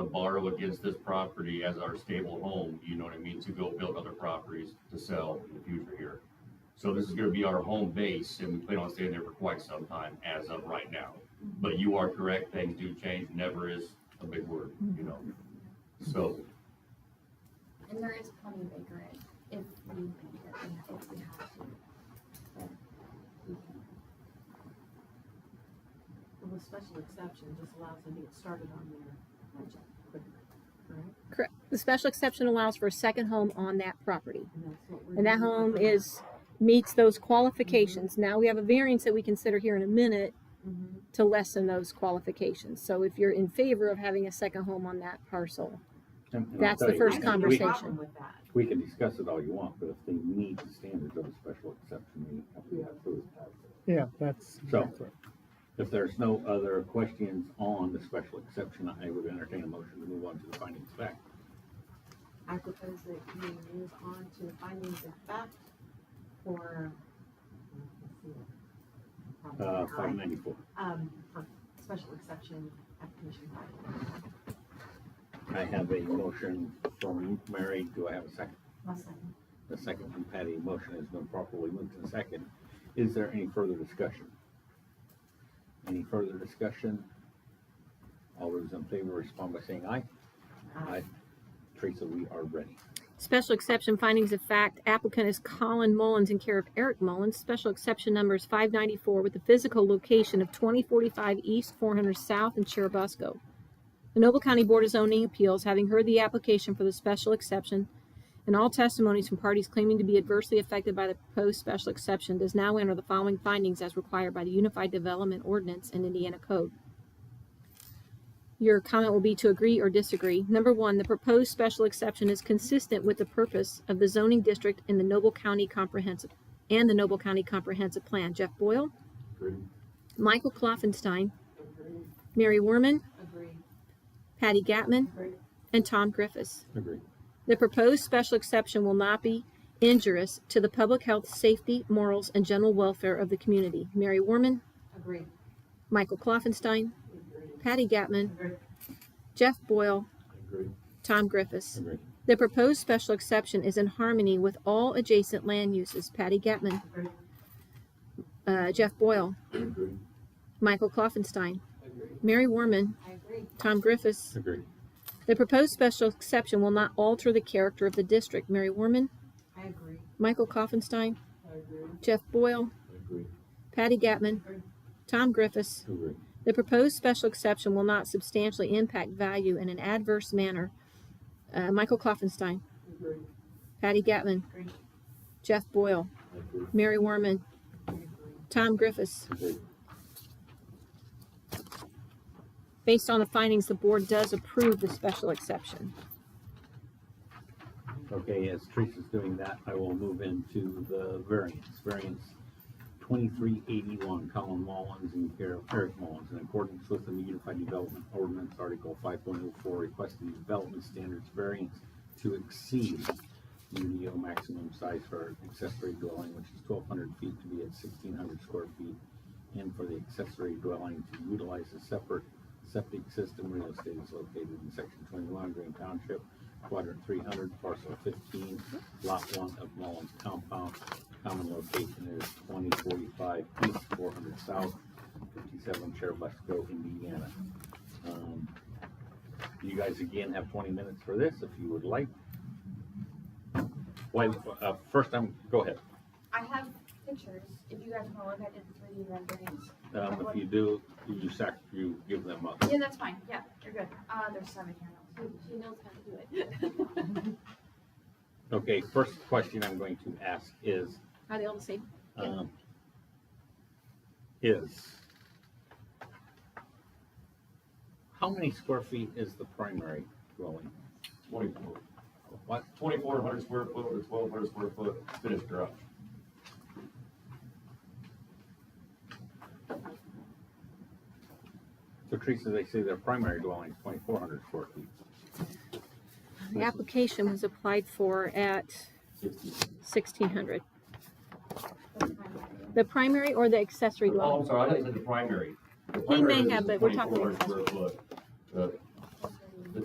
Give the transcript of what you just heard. borrow against this property as our stable home, you know what I mean, to go build other properties to sell in the future here. So this is gonna be our home base and we plan on staying there for quite some time as of right now. But you are correct, things do change, never is a big word, you know? So, And there is plenty of acreage if we think that we have, if we have to. but we can. Well, the special exception just allows them to get started on their project quicker, right? Correct. The special exception allows for a second home on that property. And that's what we're. And that doing. home is, meets those qualifications. Now we have a variance that we consider here in a minute Mhm. to lessen those qualifications. So if you're in favor of having a second home on that parcel, And- and I'll That's the tell you, first I have we- no conversation. problem with that. We can discuss it all you want, but if they meet the standards of a special exception, we have to have those. Yeah, that's. So- exactly. If there's no other questions on the special exception, I would entertain a motion to move on to the findings of fact. I propose that we move on to findings of fact for. Uh, five ninety-four. Um, for special exception application five. I have a motion from Mary. Do I have a second? I'll second. The second from Patty. Motion has been properly moved and second. Is there any further discussion? Any further discussion? All those in favor respond by saying aye. Uh, Aye. Teresa, we are ready. Special exception findings of fact, applicant is Colin Mullins in care of Eric Mullins. Special exception number is five ninety-four with the physical location of twenty forty-five East, four hundred South in Cherubusco. The Noble County Board of Zoning Appeals, having heard the application for the special exception and all testimonies from parties claiming to be adversely affected by the proposed special exception, does now enter the following findings as required by the Unified Development Ordinance and Indiana Code. Your comment will be to agree or disagree. Number one, the proposed special exception is consistent with the purpose of the zoning district in the Noble County Comprehensive and the Noble County Comprehensive Plan. Jeff Boyle, Agreed. Michael Kloffenstein, Agree, Mary Werman, agree, Patty Gatman, agree. and Tom Griffiths. Agreed. The proposed special exception will not be injurious to the public health, safety, morals, and general welfare of the community. Mary Werman, Agree. Michael Kloffenstein, Patty Gatman, Agree. Jeff Boyle, Agreed. Tom Griffiths. Agreed. The proposed special exception is in harmony with all adjacent land uses. Patty Gatman, Agree. uh, Jeff Boyle, Agreed. Michael Kloffenstein, Mary Warman, I agree. Tom Griffiths. Agreed. The proposed special exception will not alter the character of the district. Mary Warman, I agree. Michael Kloffenstein, I agree. Jeff Boyle, Agreed. Patty Gatman, Tom Griffiths. Agreed. The proposed special exception will not substantially impact value in an adverse manner. Uh, Michael Kloffenstein, Agree. Patty Gatman, Agree. Jeff Boyle, Agreed. Mary Warman, Agree. Tom Griffiths. Agreed. Based on the findings, the board does approve the special exception. Okay, as Teresa's doing that, I will move into the variance. Variance twenty-three eighty-one, Colin Mullins and care of Eric Mullins. In accordance with the Unified Development Ordinance, Article five point oh four, requested development standards variance to exceed UDO maximum size for accessory dwelling, which is twelve hundred feet to be at sixteen hundred square feet. And for the accessory dwelling to utilize a separate septic system, real estate is located in section twenty-one, Green Township, quadrant three hundred, parcel fifteen, lot one of Mullins compound. Common location is twenty forty-five east, four hundred south, fifty-seven Cherubusco, Indiana. Um, You guys again have twenty minutes for this if you would like. Wait, uh, first I'm, go ahead. I have pictures, if you guys wanna look, I did three D renderings. Um, if you do, you sac, you give them up. Yeah, that's fine, yeah, you're good. Uh, there's seven here. She- She knows how to do it. Okay, first question I'm going to ask is, Are they all the same? um, is how many square feet is the primary dwelling? twenty-four, What, twenty-four hundred square foot or twelve hundred square foot finished garage. so Teresa, they say their primary dwelling is twenty-four hundred square feet. The application was applied for at sixteen hundred. That's fine. The primary or the accessory Oh, dwelling? I'm sorry, I thought you said the primary. The He may primary have, is but we're talking 2,400 square foot. uh, The